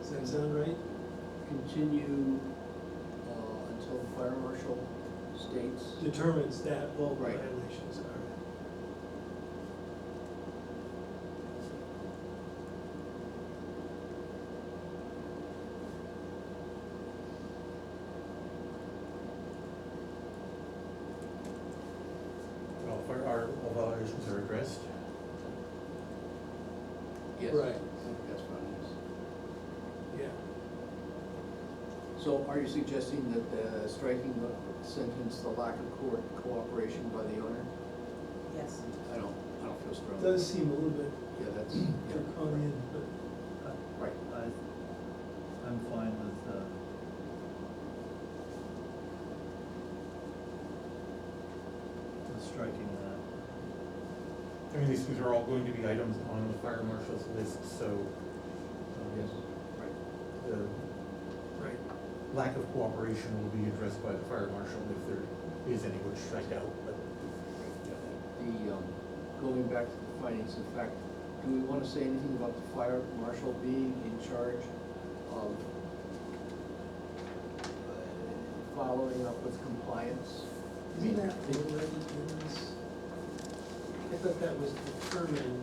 Does that sound right? continue uh, until the fire marshal states. Determines that all Right. violations are. Well, if our, all violations are addressed, Yes. Right. I think That's what it Yeah, is. So are you suggesting that uh, striking the sentence, the lack of court cooperation by the owner? Yes. I don't, I don't feel strongly. does seem a little bit Yeah, that's, yeah, draconian, but. right. I, I'm fine with, uh, with striking that. I mean, these things are all going to be items on the fire marshal's list, so. um, Yes, right. The Right. lack of cooperation will be addressed by the fire marshal if there is any, which I doubt, but. The, um, going back to the findings of fact, do we want to say anything about the fire marshal being in charge of uh, following up with compliance? Isn't that already in this? I thought that was determined.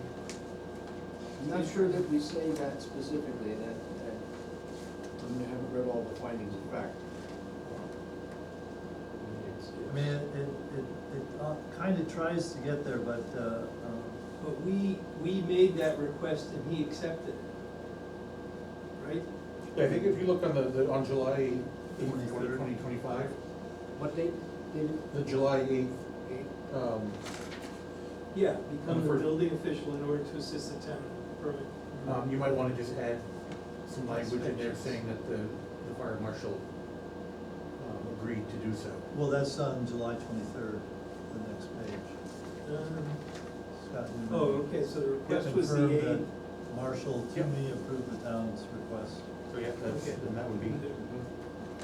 I'm not sure that we say that specifically, that, that, I mean, I haven't read all the findings of fact. I mean, it, it, it- it uh, kinda tries to get there, but, uh, um, But we, we made that request and he accepted it. Right? Yeah, I think if you look on the, the, on July eighth, twenty, 23rd. twenty twenty-five, What date, David? the July eighth, Eight? um, Yeah, become the Number- building official in order to assist the town in permit. um, you might wanna just add some language in there saying that the, the fire marshal, um, agreed to do so. well, that's on July twenty-third, the next page. Um, Scott Newman. Oh, okay, so the Yeah, request was confirm the that eighth. Marshall Yep. Toomey approved the town's request. So, yeah, that's, Okay. then that would be.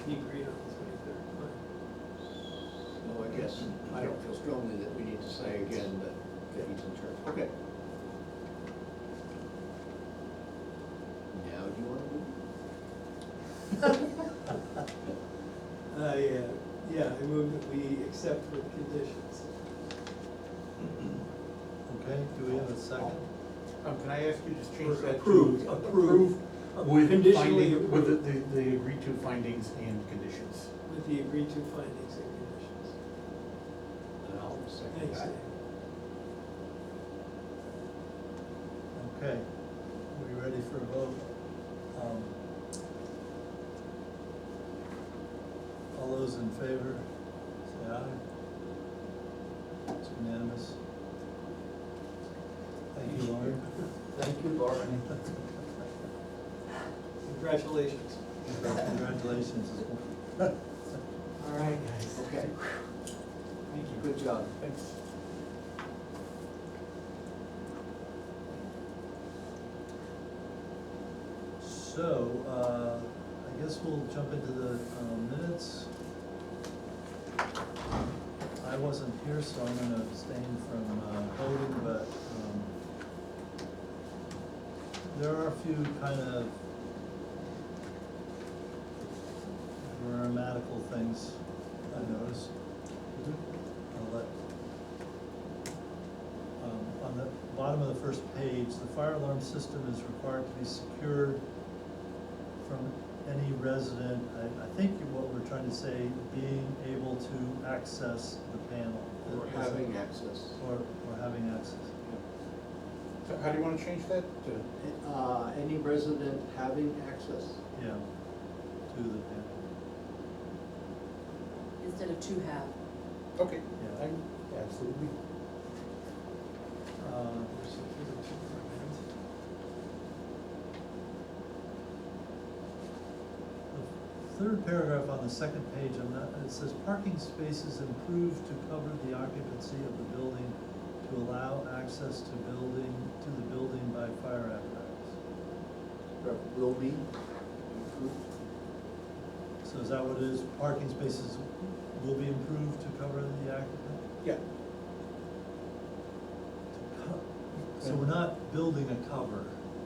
He agreed on the twenty-third, fine. No, I guess, I don't feel strongly that we need to say again that, that he's in charge. Okay. Now, do you want to move? I, uh, yeah, I move that we accept with conditions. Okay, do we have a second? Um, can I ask you to just change Or that to? approved, approved. With Conditionally finding, with approved. the, the- the agreed to findings and conditions. With the agreed to findings and conditions. And I'll second Thanks, that. Dave. Okay, are we ready for a vote? Um, All those in favor, say aye. It's unanimous. Thank you, Lauren. Thank you, Lauren. Congratulations. Congratulations as well. All right, guys. Okay, Thank you. good job. Thanks. So, uh, I guess we'll jump into the um, minutes. I wasn't here, so I'm gonna abstain from uh, voting, but um, there are a few kind of grammatical things I noticed. I'll let um, on the bottom of the first page, the fire alarm system is required to be secured from any resident, I, I think what we're trying to say, being able to access the panel. We're having access. Or, or having access. So how do you wanna change that to? Uh, any resident having access? Yeah, to the panel, Instead of to have. Okay. yeah. I'm absolutely. Uh, The Third paragraph on the second page, I'm not, it says parking spaces improved to cover the occupancy of the building to allow access to building, to the building by fire apparatus. Rep- Will be improved? So is that what it is, parking spaces will be improved to cover the occupant? Yeah. So we're not building a cover.